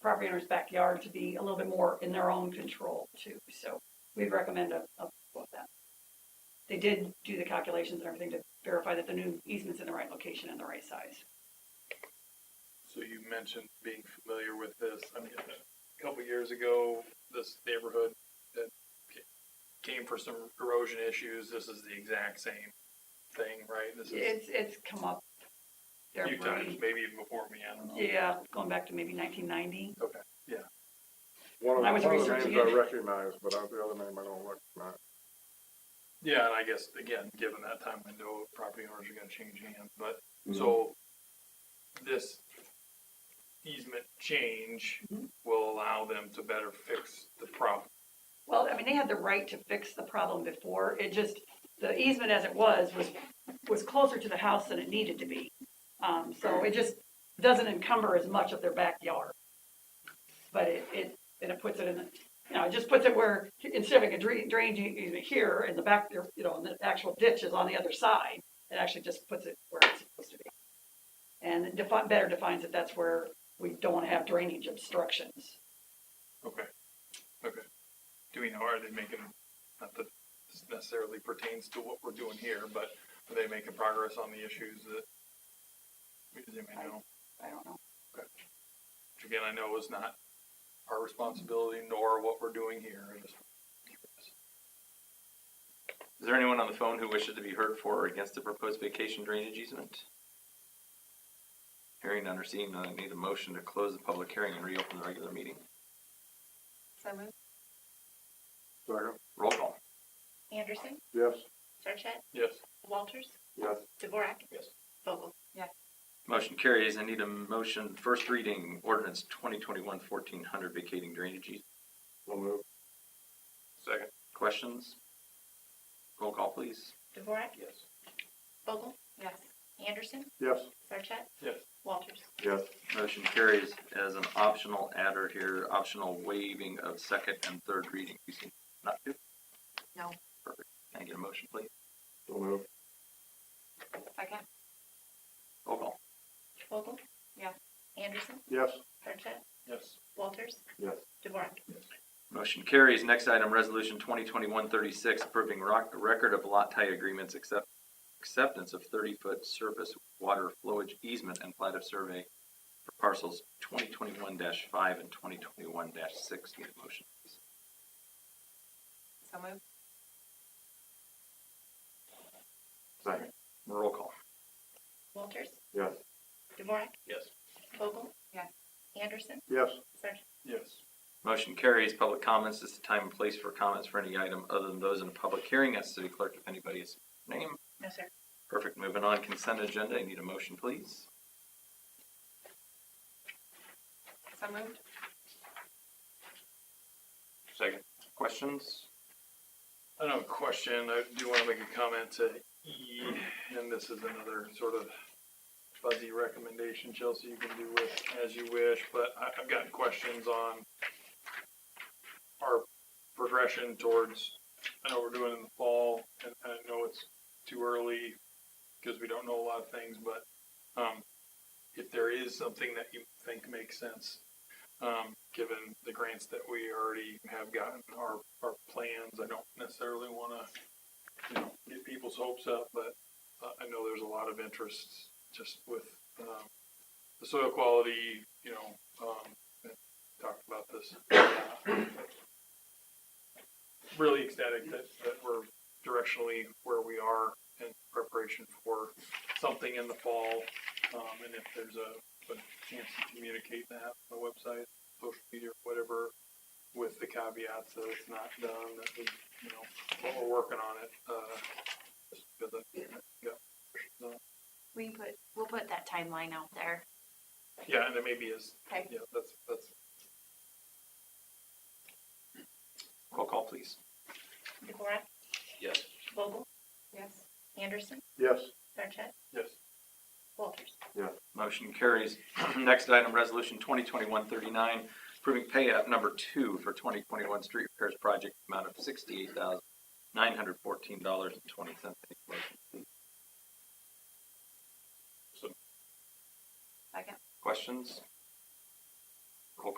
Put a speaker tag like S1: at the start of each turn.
S1: property owner's backyard to be a little bit more in their own control too. So we'd recommend a, a, of that. They did do the calculations and everything to verify that the new easement's in the right location and the right size.
S2: So you mentioned being familiar with this. I mean, a couple of years ago, this neighborhood that ca- came for some erosion issues, this is the exact same thing, right? This is
S1: It's, it's come up.
S2: a
S1: there
S2: few
S1: pretty-
S2: times, maybe even before me, I don't know.
S1: Yeah, going back to maybe nineteen ninety.
S3: One of,
S1: I was
S3: one of the
S1: researching
S3: names I
S1: it.
S3: recognize, but I- the other name I don't recognize.
S2: Yeah, and I guess, again, given that time window, property owners are gonna change hands, but, so this easement change
S1: Mhm.
S2: will allow them to better fix the problem.
S1: Well, I mean, they had the right to fix the problem before. It just, the easement as it was, was, was closer to the house than it needed to be. Um, so it just doesn't encumber as much of their backyard. But it, it, and it puts it in, the you know, it just puts it where, instead of having a drain, drain easement here in the back, there, you know, and the actual ditch is on the other side, it actually just puts it where it's supposed to be. And it defi- better defines that that's where we don't want to have drainage obstructions.
S2: Okay, okay. Do we know, are they making, not that this necessarily pertains to what we're doing here, but are they making progress on the issues that we didn't even know?
S1: I don't know.
S2: Which again, I know is not our responsibility nor what we're doing here. I just-
S4: Is there anyone on the phone who wishes to be heard for or against the proposed vacation drainage easement? Hearing none or seeing none, I need a motion to close the public hearing and reopen the regular meeting.
S5: So moved.
S3: Second,
S4: Roll call.
S5: Anderson,
S3: yes,
S5: Sarchet,
S2: Yes,
S5: Walters,
S3: yes,
S5: Dvorak,
S2: yes.
S5: Vogel.
S4: Motion carries. I need a motion, first reading, ordinance 2021-1400 vacating drainage easement.
S3: so move,
S2: Second.
S4: Questions? Roll call, please.
S5: Dvorak,
S2: Yes.
S5: Vogel. Yes. Anderson,
S3: yes,
S5: Sarchet,
S2: Yes.
S5: Walters.
S3: yes,
S4: Motion carries as an optional adder here, optional waiving of second and third reading. You see, not to?
S5: No.
S4: Perfect. Can I get a motion, please?
S3: so move,
S5: Second.
S4: Roll call.
S5: Vogel. Yes. Anderson,
S3: yes,
S5: Sarchet,
S2: Yes.
S5: Walters,
S3: yes,
S5: Dvorak.
S4: Motion carries. Next item, resolution 2021-36, approving rock, record of lot tie agreements accept, acceptance of thirty-foot surface water flowage easement and plat of survey for parcels twenty twenty-one five and twenty twenty-one six. Need a motion, please.
S5: So moved.
S3: second,
S4: Roll call.
S5: Walters,
S3: yes,
S5: Dvorak,
S2: Yes.
S5: Vogel. Yes. Anderson,
S3: yes,
S5: Sarchet.
S2: Yes.
S4: Motion carries. Public comments this is the time and place for comments for any item other than those in a public hearing. Ask city clerk if anybody is named.
S5: No, sir.
S4: Perfect. Moving on, consent agenda. I need a motion, please.
S5: So moved.
S4: Second. Questions?
S2: I don't have a question. I do want to make a comment to E, and this is another sort of fuzzy recommendation, Chelsea, you can do with as you wish, but I, I've got questions on our progression towards, I know we're doing it in the fall, and and I know it's too early because we don't know a lot of things, but, um, if there is something that you think makes sense um, given the grants that we already have gotten, our, our plans, I don't necessarily wanna, you know, get people's hopes up, but uh, I know there's a lot of interest just with, um, the soil quality, you know, um, and talked about this. uh, Really ecstatic that, that we're directionally where we are in preparation for something in the fall, um, and if there's a, a chance to communicate that on the website, social media, whatever, with the caveats that it's not done, that we, you know, but we're working on it, uh, just because I, yeah. So,
S5: We can put, we'll put that timeline out there.
S2: Yeah, and it maybe is,
S5: Okay.
S2: yeah, that's, that's,
S4: Roll call, please.
S5: Dvorak,
S4: Yes.
S5: Vogel. Yes. Anderson,
S3: yes,
S5: Sarchet,
S2: yes,
S5: Walters.
S4: Motion carries. Next item, resolution 2021-39, approving pay app number two for twenty twenty-one street repairs project amount of sixty-eight thousand nine hundred fourteen dollars and twenty cents.
S5: Second.
S4: Questions?